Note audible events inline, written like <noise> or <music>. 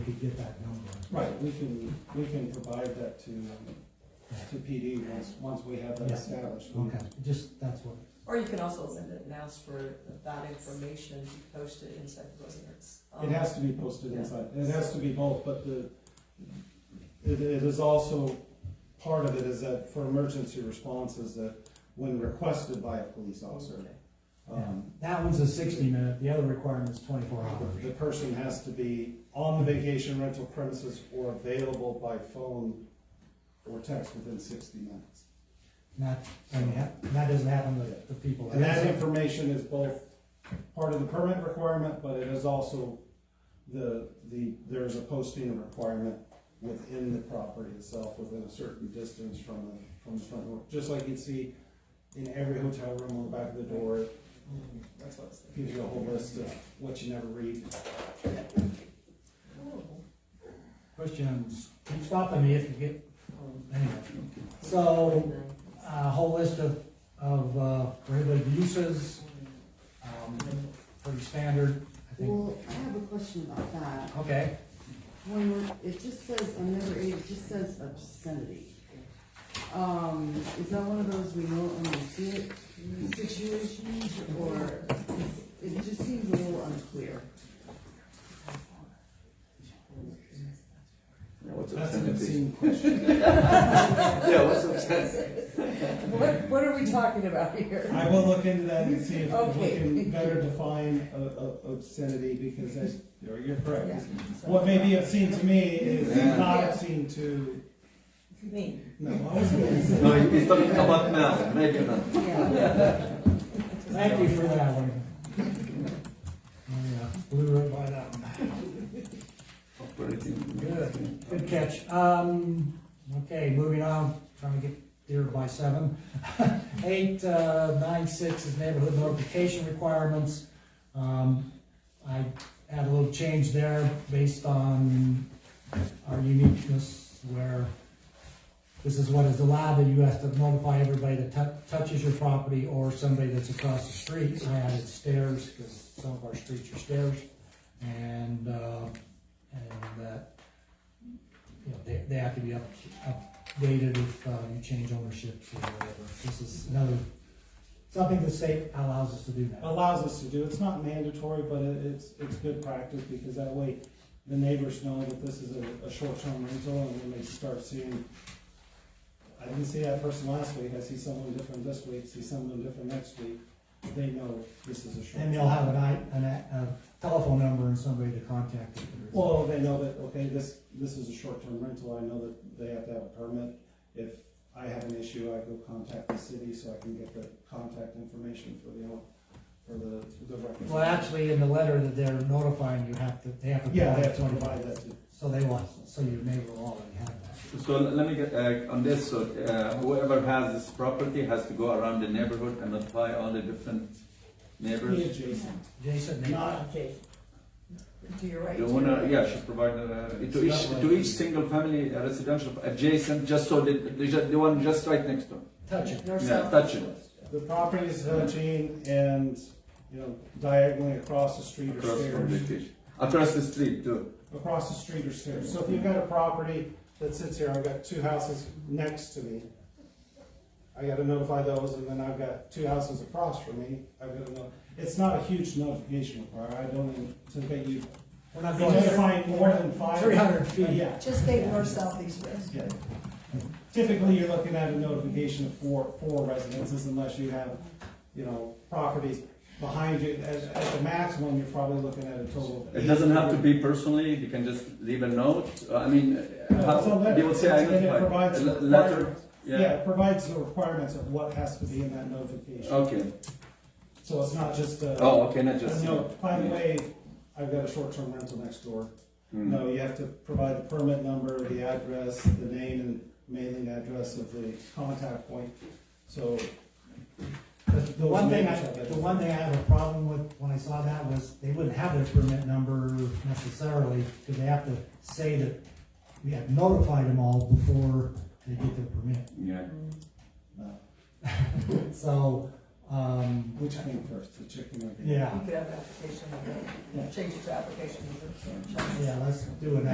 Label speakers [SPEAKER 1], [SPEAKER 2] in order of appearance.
[SPEAKER 1] could get that number.
[SPEAKER 2] Right, we can, we can provide that to, um, to PD once, once we have that
[SPEAKER 1] Yeah.
[SPEAKER 2] established.
[SPEAKER 1] Okay, just, that's what,
[SPEAKER 3] Or you can also send it and ask for that information to be posted inside the residence.
[SPEAKER 2] It has to be posted inside, it has to be both, but the, it, it is also, part of it is that for emergency responses that when requested by a police officer, um,
[SPEAKER 1] that one's a sixty minute, the other requirement's twenty-four hours.
[SPEAKER 2] the person has to be on the vacation rental premises or available by phone or text within sixty minutes.
[SPEAKER 1] Not, and that- that doesn't happen with the people.
[SPEAKER 2] And that information is both part of the permit requirement, but it is also the, the, there's a posting requirement within the property itself, within a certain distance from the, from the front door. Just like you'd see in every hotel room on the back of the door, it
[SPEAKER 3] Mm-hmm. That's what I was thinking.
[SPEAKER 2] gives you a whole list of what you never read.
[SPEAKER 1] Questions, keep stopping me if you get, anyway. So, a whole list of, of uh, prohibited uses, um, pretty standard, I think.
[SPEAKER 4] Well, I have a question about that.
[SPEAKER 1] Okay,
[SPEAKER 4] When we're, it just says, on number eight, it just says obscenity. Um, is that one of those we know and we see it situations, or it just seems a little unclear?
[SPEAKER 5] Yeah, what's
[SPEAKER 2] That's an
[SPEAKER 5] obscenity?
[SPEAKER 2] obscene question.
[SPEAKER 5] Yeah, what's obscenity?
[SPEAKER 3] What, what are we talking about here?
[SPEAKER 2] I will look into that and see if we
[SPEAKER 3] Okay.
[SPEAKER 2] can better define uh, uh, obscenity, because that's, you're
[SPEAKER 3] Yeah.
[SPEAKER 2] correct. What may be obscene to me is
[SPEAKER 5] Yeah.
[SPEAKER 2] not obscene to,
[SPEAKER 3] Me.
[SPEAKER 2] no, I was gonna say.
[SPEAKER 5] No, it's not about now, maybe not.
[SPEAKER 4] Yeah,
[SPEAKER 1] thank you for that one. Oh, yeah, Blew right by that one.
[SPEAKER 5] Operating.
[SPEAKER 1] Good, good catch. Um, okay, moving on, trying to get there by seven. <laughs> Eight, uh, nine, six is neighborhood notification requirements. Um, I had a little change there based on our uniqueness where this is what is allowed, that you have to notify everybody that tou- touches your property or somebody that's across the street. I added stairs, because some of our streets are stairs. And, uh, and that you know, they, they have to be up, updated if, uh, you change ownerships or whatever. This is another, something the state allows us to do now.
[SPEAKER 2] allows us to do. It's not mandatory, but it, it's, it's good practice because that way the neighbors know that this is a, a short-term rental and when they start seeing, I didn't see that person last week, I see someone different this week, see someone different next week, they know this is a short.
[SPEAKER 1] And they'll have an I, an, a telephone number and somebody to contact. if there is-
[SPEAKER 2] Well, they know that, okay, this, this is a short-term rental, I know that they have to have a permit. If I have an issue, I go contact the city so I can get the contact information for the, owner- for the, the record.
[SPEAKER 1] Well, actually, in the letter that they're notifying, you have to, they have to.
[SPEAKER 2] Yeah, they have to
[SPEAKER 1] provide-
[SPEAKER 2] provide that to.
[SPEAKER 1] So they want, so your neighbor will already have that.
[SPEAKER 5] So l- let me get, uh, on this, so, uh, whoever has this property has to go around the neighborhood and apply all the different
[SPEAKER 2] Be
[SPEAKER 5] neighbors.
[SPEAKER 2] adjacent.
[SPEAKER 1] Jason, they-
[SPEAKER 2] Not-
[SPEAKER 3] Okay. Do you right?
[SPEAKER 5] The owner, yeah, should provide, uh, to each, to each single family uh, residential adjacent, just so that, the, ju- the one just right next to.
[SPEAKER 1] touch it.
[SPEAKER 5] Yeah, touch it.
[SPEAKER 2] The property is touching and, you know, diagonally across the street or
[SPEAKER 5] Across from the
[SPEAKER 2] stairs.
[SPEAKER 5] kitchen. Across the street too.
[SPEAKER 2] Across the street or stairs. So if you've got a property that sits here, I've got two houses next to me. I gotta notify those and then I've got two houses across from me. I've gotta know, it's not a huge notification requirement. I don't anticipate you
[SPEAKER 1] We're not going
[SPEAKER 2] notifying more than five.
[SPEAKER 1] three hundred
[SPEAKER 2] Uh,
[SPEAKER 1] feet.
[SPEAKER 2] Yeah,
[SPEAKER 3] Just think north, south, east, west.
[SPEAKER 2] yeah. Typically, you're looking at a notification of four, four residences unless you have, you know, properties behind you. At, at the maximum, you're probably looking at a total of.
[SPEAKER 5] It
[SPEAKER 2] eight.
[SPEAKER 5] doesn't have to be personally, you can just leave a note, Uh, I mean, uh,
[SPEAKER 2] No, it's a
[SPEAKER 5] how-
[SPEAKER 2] letter.
[SPEAKER 5] they will say
[SPEAKER 2] And it
[SPEAKER 5] identified,
[SPEAKER 2] provides
[SPEAKER 5] a
[SPEAKER 2] the
[SPEAKER 5] le- letter,
[SPEAKER 2] requirements. Yeah,
[SPEAKER 5] yeah,
[SPEAKER 2] it provides the requirements of what has to be in that notification.
[SPEAKER 5] okay.
[SPEAKER 2] So it's not just a.
[SPEAKER 5] Oh, okay, not
[SPEAKER 2] a
[SPEAKER 5] just.
[SPEAKER 2] note. By the way, I've got a short-term rental next door.
[SPEAKER 5] Hmm.
[SPEAKER 2] No, you have to provide the permit number, the address, the name and mailing address of the contact point. So
[SPEAKER 1] But The one thing, I- the one thing I have a problem with when I saw that was they wouldn't have their permit number necessarily, because they have to say that we have notified them all before they get their permit.
[SPEAKER 5] Yeah.
[SPEAKER 3] Mm-hmm.
[SPEAKER 2] No.
[SPEAKER 1] So, um,
[SPEAKER 2] Which came first, the chicken or the egg?
[SPEAKER 1] yeah,
[SPEAKER 3] You could have an application, number. change it to application. number.
[SPEAKER 1] yeah, let's do an